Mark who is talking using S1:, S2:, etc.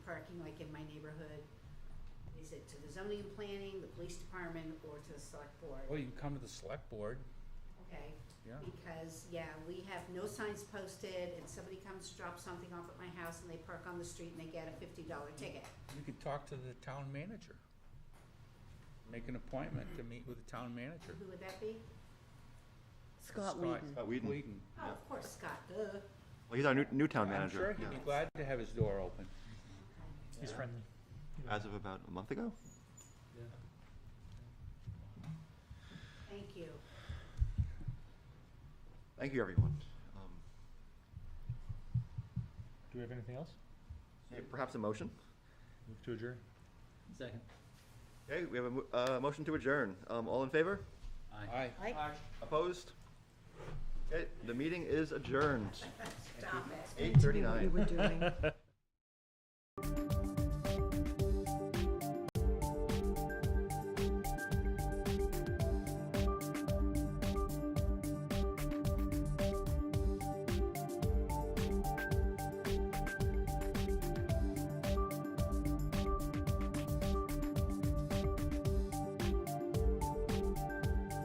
S1: parking like in my neighborhood, is it to the zoning and planning, the police department, or to the select
S2: Well,
S1: board?
S2: you can come to the select board,
S1: Okay,
S2: yeah.
S1: because, yeah, we have no signs posted, and somebody comes, drops something off at my house, and they park on the street and they get a fifty dollar ticket.
S2: You could talk to the town manager. Make an appointment to meet with the town manager.
S1: Who would that be?
S3: Scott Wheaton.
S4: Scott Whedon.
S2: Wheaton.
S1: Oh, of course, Scott, duh.
S4: Well, he's our new, new town
S2: I'm
S4: manager.
S2: sure he'd be
S4: yeah.
S2: glad to have his door open.
S5: He's friendly.
S4: As of about a month ago.
S1: Thank you.
S4: Thank you, everyone. Um,
S5: Do we have anything else?
S4: yeah, Perhaps a motion?
S5: Move to adjourn.
S6: Second.
S4: Okay, we have a, mo- uh, motion to adjourn. Um, all in favor?
S2: Aye.
S4: Opposed? Okay, the meeting is adjourned,
S1: Stop it.
S4: eight thirty-nine.
S3: We were doing.